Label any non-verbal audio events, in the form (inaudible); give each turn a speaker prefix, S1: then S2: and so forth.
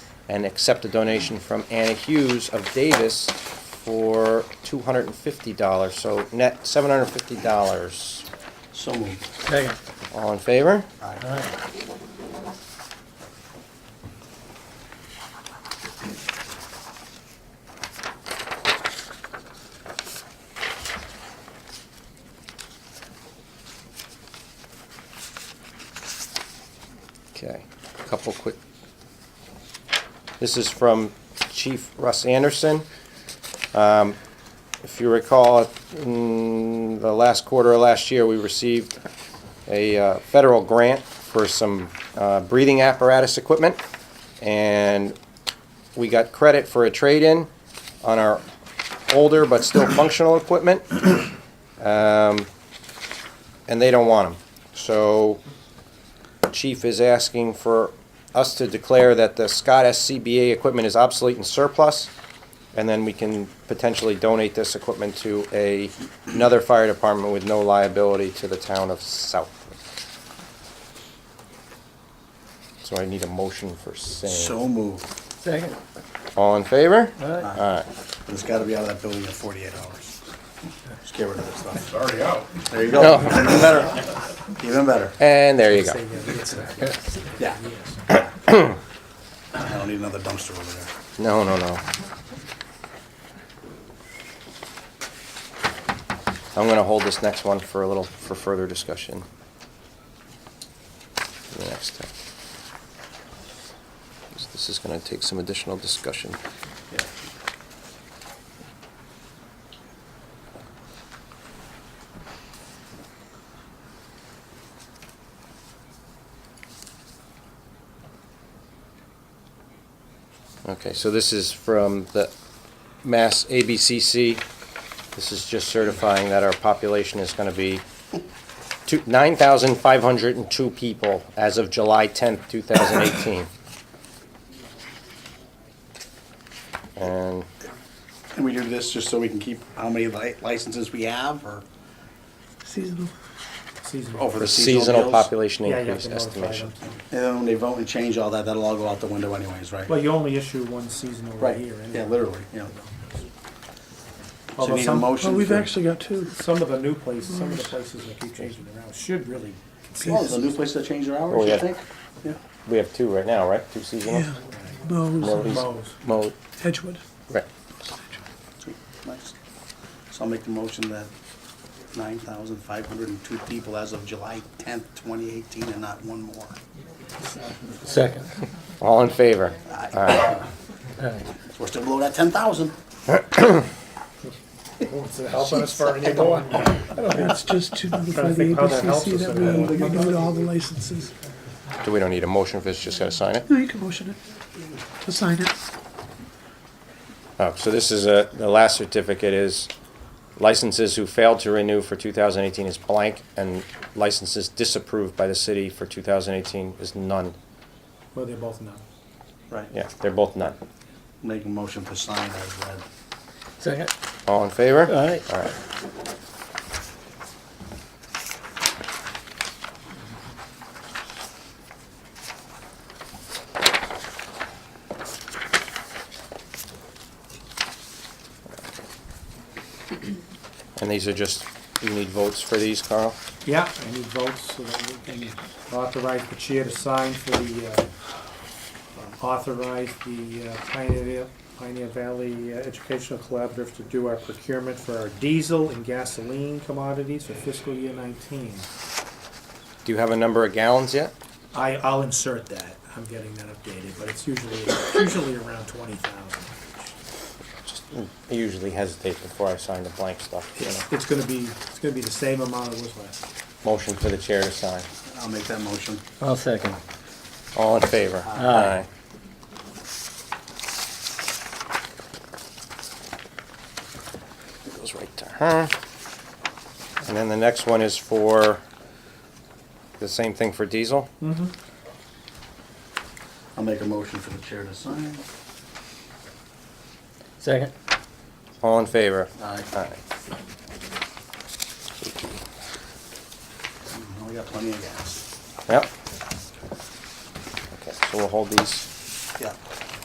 S1: and accept a donation from Anna Hughes of Davis for $250, so net $750.
S2: So moved.
S3: Second.
S1: All in favor?
S3: Aye.
S1: Okay, a couple quick. This is from Chief Russ Anderson. Um, If you recall, in the last quarter of last year, we received a uh, federal grant for some uh, breathing apparatus equipment, and we got credit for a trade-in on our older but still functional equipment. Um, And they don't want them. So chief is asking for us to declare that the Scott SCBA equipment is obsolete and surplus, and then we can potentially donate this equipment to a, another fire department with no liability to the town of South. So I need a motion for
S2: So
S1: saying.
S2: moved.
S3: Second.
S1: All in favor?
S3: Aye.
S4: Uh,
S1: Alright,
S2: But it's gotta be out of that building in forty-eight hours. Just get rid of this stuff.
S5: Already out.
S2: There you go.
S1: No.
S2: Even better. Even better.
S1: and there you go.
S2: Yeah. I don't need another dumpster over there.
S1: No, no, no. I'm gonna hold this next one for a little, for further discussion. The next time. 'Cause This is gonna take some additional discussion. Okay, so this is from the Mass ABCC. This is just certifying that our population is going to be two- 9,502 people as of July 10th, 2018. And
S2: And we do this just so we can keep how many li- licenses we have or,
S3: Seasonal. Seasonal.
S2: oh, for
S1: the
S2: the
S1: seasonal
S2: seasonal deals?
S1: population
S4: Yeah, you have
S1: increase
S4: to notify
S1: estimation.
S4: them.
S2: And then when they vote and change all that, that'll all go out the window anyways, right?
S4: Well, you only issue one seasonal a
S2: Right,
S4: year. anyway.
S2: yeah, literally, yeah. So
S4: Although
S2: you need a
S4: some-
S2: motion?
S3: Well, Oh, we've
S2: for-
S3: actually got two.
S4: Some of the new places, some of the places that keep changing around should really consider.
S2: Oh, is the new place that changed their
S1: Oh,
S2: hours,
S1: yeah.
S2: you think? Yeah.
S1: We have two right now, right? Two seasonal?
S3: Yeah. Moe's,
S1: Mo-
S4: Mo's.
S1: Mo,
S3: Edgewood.
S1: right.
S2: Sweet, Nice. So I'll make the motion that nine thousand five hundred and two people as of July tenth, twenty eighteen, and not one more.
S3: Second.
S1: All in favor?
S2: So We're still below that ten thousand. Oh,
S5: Helping
S4: (laughs)
S5: us for any more.
S3: It's just to notify
S4: Trying to
S3: the
S4: think how that helps
S3: ABCC
S4: us
S3: that
S4: in
S3: we renewed all the licenses.
S1: So we don't need a motion for this, just gotta sign it?
S3: No, you can motion it, to sign it.
S1: Oh, so this is a, the last certificate is licenses who failed to renew for 2018 is blank, and licenses disapproved by the city for 2018 is none.
S4: Well, they're both not.
S2: Right.
S1: Yeah, they're both none.
S2: Make a motion for sign as read.
S3: Second.
S1: All in favor?
S3: Aye.
S1: All right. And these are just, you need votes for these, Carl?
S4: Yeah, I need votes so that we can authorize the chair to sign for the, uh, authorize the uh, Pioneer, Pioneer Valley uh, Educational Collaborative to do our procurement for our diesel and gasoline commodities for fiscal year nineteen.
S1: Do you have a number of gallons yet?
S4: I, I'll insert that. I'm getting that updated, but it's usually, usually around twenty thousand.
S1: I usually hesitate before I sign the blank stuff, you
S4: It's,
S1: know.
S4: it's gonna be, it's gonna be the same amount it was last. year.
S1: Motion for the chair to sign.
S2: I'll make that motion.
S3: I'll second.
S1: All in favor?
S3: Aye.
S1: It Goes right to her. And then the next one is for, the same thing for diesel?
S2: I'll make a motion for the chair to sign.
S3: Second.
S1: All in favor?
S2: Aye.
S1: Aye.
S2: Mm, We got plenty of gas.
S1: Yep. Okay, so we'll hold these.
S2: Yeah.